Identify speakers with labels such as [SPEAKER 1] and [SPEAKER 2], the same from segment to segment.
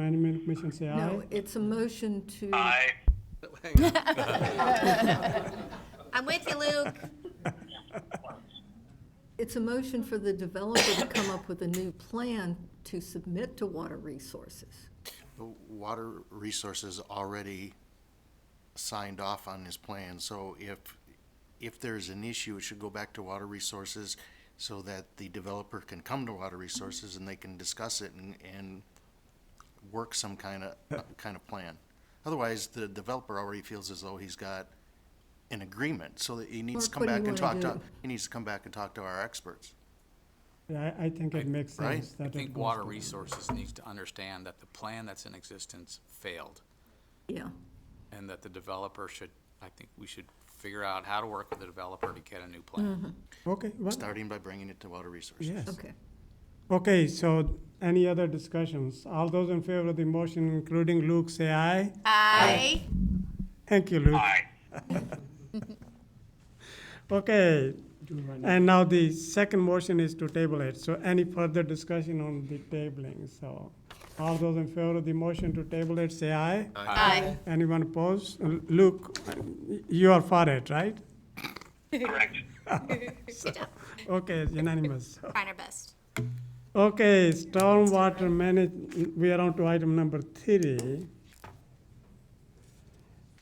[SPEAKER 1] Management Commission say aye.
[SPEAKER 2] No, it's a motion to.
[SPEAKER 3] Aye.
[SPEAKER 4] I'm with you, Luke.
[SPEAKER 2] It's a motion for the developer to come up with a new plan to submit to Water Resources.
[SPEAKER 5] The Water Resources already signed off on this plan, so if, if there's an issue, it should go back to Water Resources so that the developer can come to Water Resources and they can discuss it and, and work some kind of, kind of plan. Otherwise, the developer already feels as though he's got an agreement, so that he needs to
[SPEAKER 2] Mark, what do
[SPEAKER 5] come back
[SPEAKER 2] you
[SPEAKER 5] and talk
[SPEAKER 2] wanna
[SPEAKER 5] to,
[SPEAKER 2] do?
[SPEAKER 5] he needs to come back and talk to our experts.
[SPEAKER 1] I, I think it makes
[SPEAKER 5] right.
[SPEAKER 1] sense that
[SPEAKER 6] I
[SPEAKER 1] it
[SPEAKER 6] think
[SPEAKER 1] goes
[SPEAKER 6] Water
[SPEAKER 1] to-
[SPEAKER 6] Resources needs to understand that the plan that's in existence failed,
[SPEAKER 2] Yeah,
[SPEAKER 6] and that the developer should, I think we should figure out how to work with the developer to get a new
[SPEAKER 1] Mm-hmm.
[SPEAKER 6] plan.
[SPEAKER 1] Okay, well,
[SPEAKER 5] Starting by bringing it to Water Resources.
[SPEAKER 1] yes.
[SPEAKER 2] okay.
[SPEAKER 1] Okay, so any other discussions? All those in favor of the motion, including Luke, say aye.
[SPEAKER 4] Aye.
[SPEAKER 1] Thank you, Luke.
[SPEAKER 3] Aye.
[SPEAKER 1] Okay, and now the second motion is to table it. So any further discussion on the tabling? So all those in favor of the motion to table it, say aye.
[SPEAKER 4] Aye.
[SPEAKER 1] Anyone opposed? L- Luke, you are for it, right?
[SPEAKER 3] Correct.
[SPEAKER 1] Okay, it's unanimous.
[SPEAKER 4] Trying our best.
[SPEAKER 1] Okay, stormwater manage, we are on to item number three.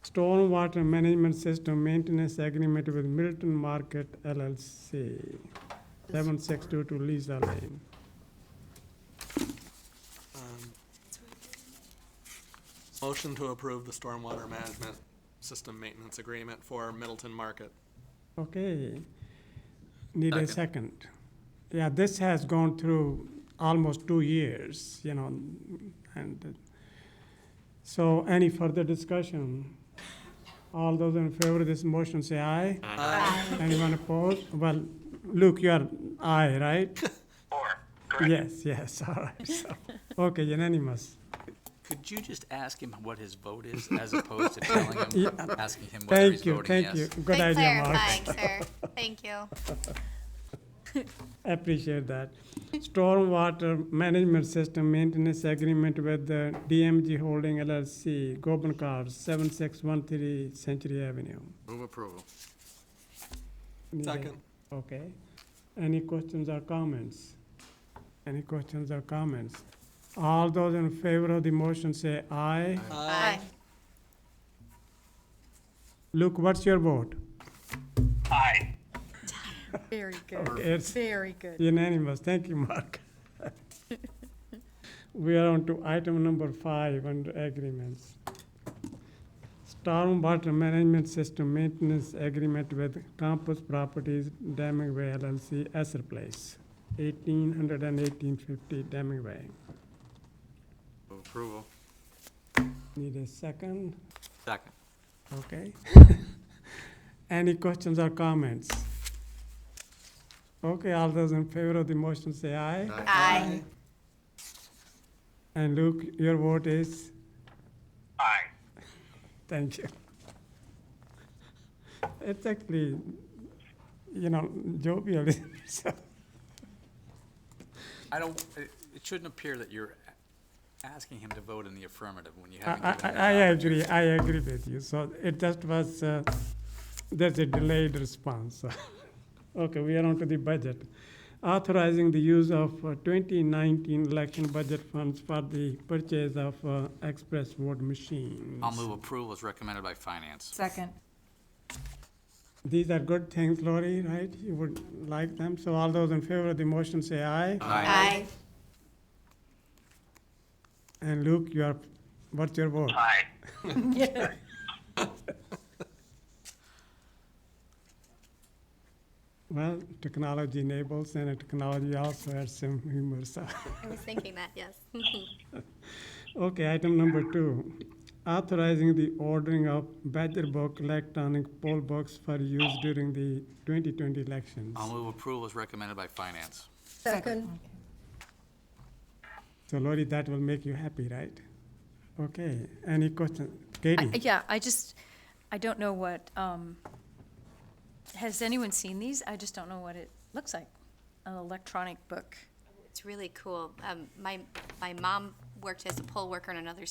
[SPEAKER 1] Stormwater Management System Maintenance Agreement with Milton Market LLC, seven six two two Lisa Lane.
[SPEAKER 7] Motion to approve the stormwater management system maintenance agreement for Middleton Market.
[SPEAKER 1] Okay, need a second. Yeah, this has gone through almost two years, you know, and, uh, so any further discussion? All those in favor of this motion say aye. Aye. Anyone opposed? Well, Luke, you are aye, right?
[SPEAKER 3] Four. Correct.
[SPEAKER 1] Yes, yes, all right, so, okay, unanimous.
[SPEAKER 6] Could you just ask him what his vote is, as opposed to telling
[SPEAKER 1] Yeah.
[SPEAKER 6] him, asking him whether he's
[SPEAKER 1] Thank you,
[SPEAKER 6] voting
[SPEAKER 1] thank you,
[SPEAKER 6] yes?
[SPEAKER 1] good
[SPEAKER 4] Good
[SPEAKER 1] idea, Mark.
[SPEAKER 4] clarifying, sir. Thank you.
[SPEAKER 1] Appreciate that. Stormwater Management System Maintenance Agreement with the DMG Holding LLC, Goben Cars, 7613 Century Avenue.
[SPEAKER 5] Move approval.
[SPEAKER 1] Need a-
[SPEAKER 7] Second.
[SPEAKER 1] Okay. Any questions or comments? Any questions or comments? All those in favor of the motion say aye.
[SPEAKER 4] Aye.
[SPEAKER 1] Luke, what's your vote?
[SPEAKER 3] Aye.
[SPEAKER 8] Very good,
[SPEAKER 1] It's
[SPEAKER 8] very good.
[SPEAKER 1] Unanimous, thank you, Mark. We are on to item number five under agreements. Stormwater Management System Maintenance Agreement with Campus Properties Damingway LLC, Esser Place, eighteen hundred and eighteen fifty Damingway.
[SPEAKER 5] Move approval.
[SPEAKER 1] Need a second,
[SPEAKER 6] Second.
[SPEAKER 1] okay? Any questions or comments? Okay, all those in favor of the motion say aye.
[SPEAKER 4] Aye.
[SPEAKER 1] And Luke, your vote is?
[SPEAKER 3] Aye.
[SPEAKER 1] Thank you. It's actually, you know, jovial. so,
[SPEAKER 6] I don't, it it shouldn't appear that you're a- asking him to vote in the affirmative when you
[SPEAKER 1] I,
[SPEAKER 6] haven't
[SPEAKER 1] I,
[SPEAKER 6] given
[SPEAKER 1] I
[SPEAKER 6] him that
[SPEAKER 1] I
[SPEAKER 6] opportunity.
[SPEAKER 1] agree, I agree with you. So it just was, uh, there's a delayed response. so. Okay, we are on to the budget. Authorizing the use of uh, 2019 election budget funds for the purchase of uh, express vote machines.
[SPEAKER 6] I'll move approval as recommended by finance.
[SPEAKER 8] Second.
[SPEAKER 1] These are good things, Lori, right? You would like them. So all those in favor of the motion say aye.
[SPEAKER 4] Aye.
[SPEAKER 1] And Luke, you are, what's your vote?
[SPEAKER 3] Aye.
[SPEAKER 1] Well, technology enables and technology also has some humor, so.
[SPEAKER 4] I was thinking that, yes.
[SPEAKER 1] Okay, item number two, authorizing the ordering of Badger Book electronic poll books for use during the 2020 elections.
[SPEAKER 6] I'll move approval as recommended by finance.
[SPEAKER 2] Second,
[SPEAKER 1] So Lori, that will make you happy, right? Okay, any question? Katie?
[SPEAKER 8] Yeah, I just, I don't know what, um, has anyone seen these? I just don't know what it looks like, an electronic book.
[SPEAKER 4] It's really cool. Um, my, my mom worked as a poll worker in another